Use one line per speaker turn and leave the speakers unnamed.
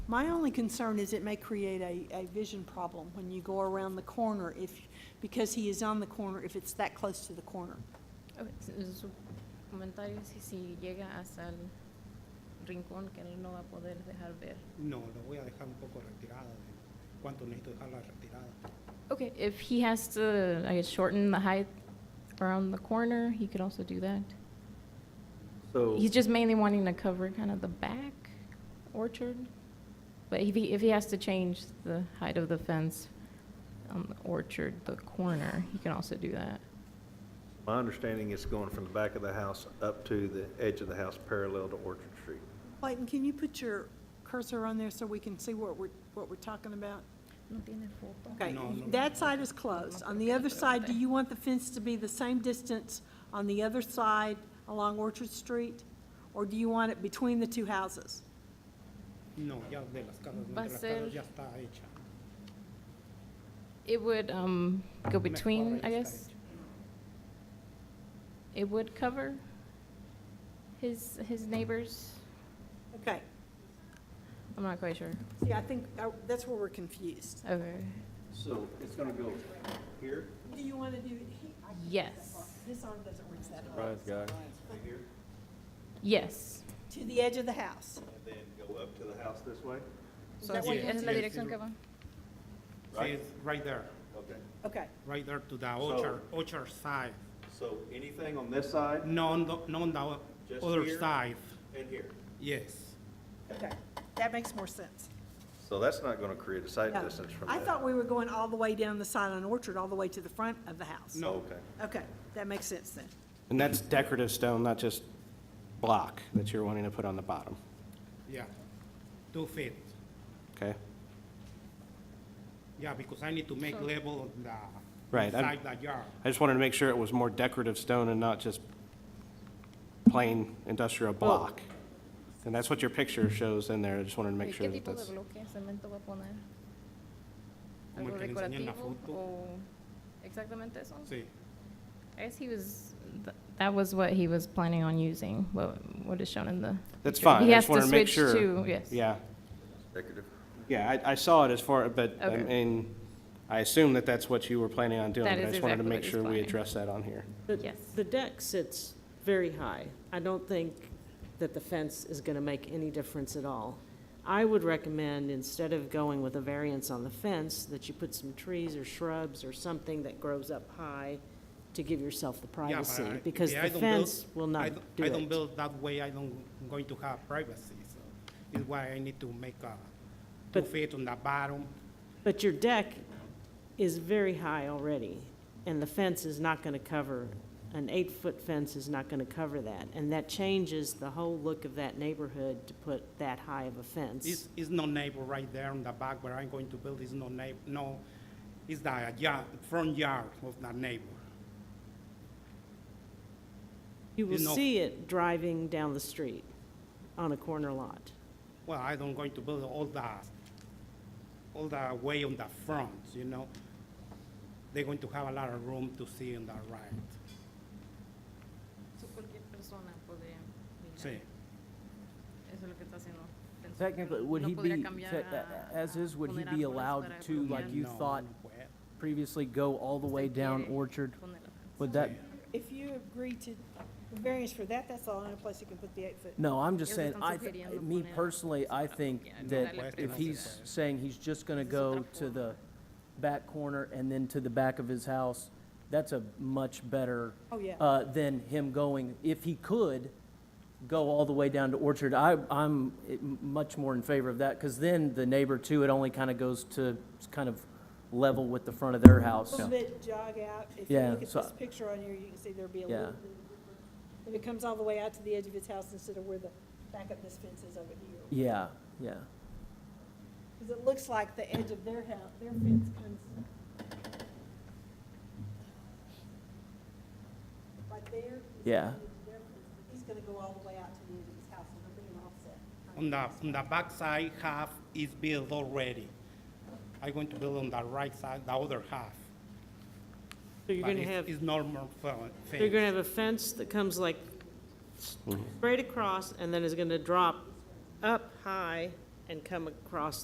My only concern is it may create a, a vision problem when you go around the corner if, because he is on the corner, if it's that close to the corner.
Ok, su- Su comentario es si, si llega hasta el rincón que él no va a poder dejar ver.
No, lo voy a dejar un poco retirada. De ¿Cuánto necesito dejarla retirada?
Okay, if he has to, I guess, shorten the height around the corner, he could also do that.
So,
He's just mainly wanting to cover kind of the back orchard. But if he, if he has to change the height of the fence on the orchard, the corner, he can also do that.
my understanding is going from the back of the house up to the edge of the house parallel to Orchard Street.
Clayton, can you put your cursor on there so we can see what we're, what we're talking about? Okay,
No, no.
that side is closed. On the other side, do you want the fence to be the same distance on the other side along Orchard Street? Or do you want it between the two houses?
No, ya de las casas, no,
Va a
de las
ser-
casas ya está hecha.
It would, um, go
Mejor
between,
ya
I
está
guess?
hecha.
It would cover his, his neighbors?
Okay,
I'm not quite sure.
see, I think uh, that's where we're confused.
Okay,
So it's going to go here,
Do you want to do,
yes,
this arm doesn't reach that
Surprise, guy.
right here,
yes.
To the edge of the house.
and then go up to the house this way?
Is that what you
Yeah.
want
Es
to
la
do?
dirección que va.
Sí, it's right there,
Okay.
Okay,
right there to the orchard, orchard side.
So anything on this side
No on the, no on the o-
Just
other
here?
side.
and here?
Yes.
okay, that makes more sense.
So that's not going to create a sight
Yeah.
distance from
I
that?
thought we were going all the way down the side on Orchard, all the way to the front of the house.
No.
Okay.
Okay, that makes sense then.
And that's decorative stone, not just block that you're wanting to put on the bottom,
Yeah, two feet.
okay?
Yeah, because I need to make level on the
Right, I'm-
inside the yard.
I just wanted to make sure it was more decorative stone and not just plain industrial block. And that's what your picture shows in there, I just wanted to make
¿Y
sure
qué
that
tipo de
that's,
bloque, cemento va a poner?
Como
¿Algo
el que le enseñé en la
decorativo
foto.
o exactamente eso?
Sí.
I guess he was, th- that was what he was planning on using, what, what is shown in the.
that's
picture.
fine,
He
I
has
just
to
wanted to make
switch
sure.
to- Yes.
Yeah,
Decorative.
yeah, I, I saw it as far, but, I
Okay.
mean, I assume that that's what you were planning on doing.
That
but
is
I just wanted to
exactly
make
what he's
sure we
planning.
address that on here.
The-
Yes.
The deck sits very high. I don't think that the fence is going to make any difference at all. I would recommend, instead of going with a variance on the fence, that you put some trees or shrubs or something that grows up high to give yourself the
Yeah, but
privacy,
I-
because
if I
the
don't
fence
build-
will
I
not
don't-
do
I don't
it.
build that way, I don't, I'm going to have privacy, so it's why I need to make a two
But-
feet on the bottom.
But your deck is very high already, and the fence is not going to cover, an eight-foot fence is not going to cover that. And that changes the whole look of that neighborhood to put that high of a fence.
It's, it's no neighbor right there on the back where I'm going to build, it's no neighbor, no, it's the yard, front yard of the neighbor.
You will
You know-
see it driving down the street on a corner lot.
Well, I don't going to build all the, all the way on the front, you know? They're going to have a lot of room to see on the right,
cualquier persona podría
sí.
Eso es lo que está haciendo.
Technically, would he be, te- a- as is, would he be allowed to, like you
No,
thought
well,
previously, go all the way down Orchard? Would that,
If you agree to variance for that, that's the only place you can put the eight foot.
no, I'm just
Ellos
saying,
están
I, th-
sugiriendo
me
poner-
personally, I think
Yeah, no darle
that if
preferencia.
he's saying he's just gonna
Esa es otra
go to
forma.
the back corner and then to the back of his house, that's a much better
Oh, yeah.
uh, than him going, if he could, go all the way down to Orchard. I, I'm eh, m- much more in favor of that, because then the neighbor too, it only kind of goes to s- kind of level with the front of their
A
house.
little bit jog out. If you
Yeah,
look at
so-
this picture on here, you can see there'd be a
Yeah.
little. If it comes all the way out to the edge of his house instead of where the back of this fence is over here.
Yeah, yeah.
Because it looks like the edge of their house, their fence comes. Right there. is the
Yeah.
edge of their fence. He's gonna go all the way out to the edge of his house and there'll be an offset.
On the, on the back side, half is built already. I'm going to build on the right side, the other half.
So you're
But
going to
it's-
have,
It's normal fe-
so you're going to
fence.
have a fence that comes like straight across and then is going to drop up high and come across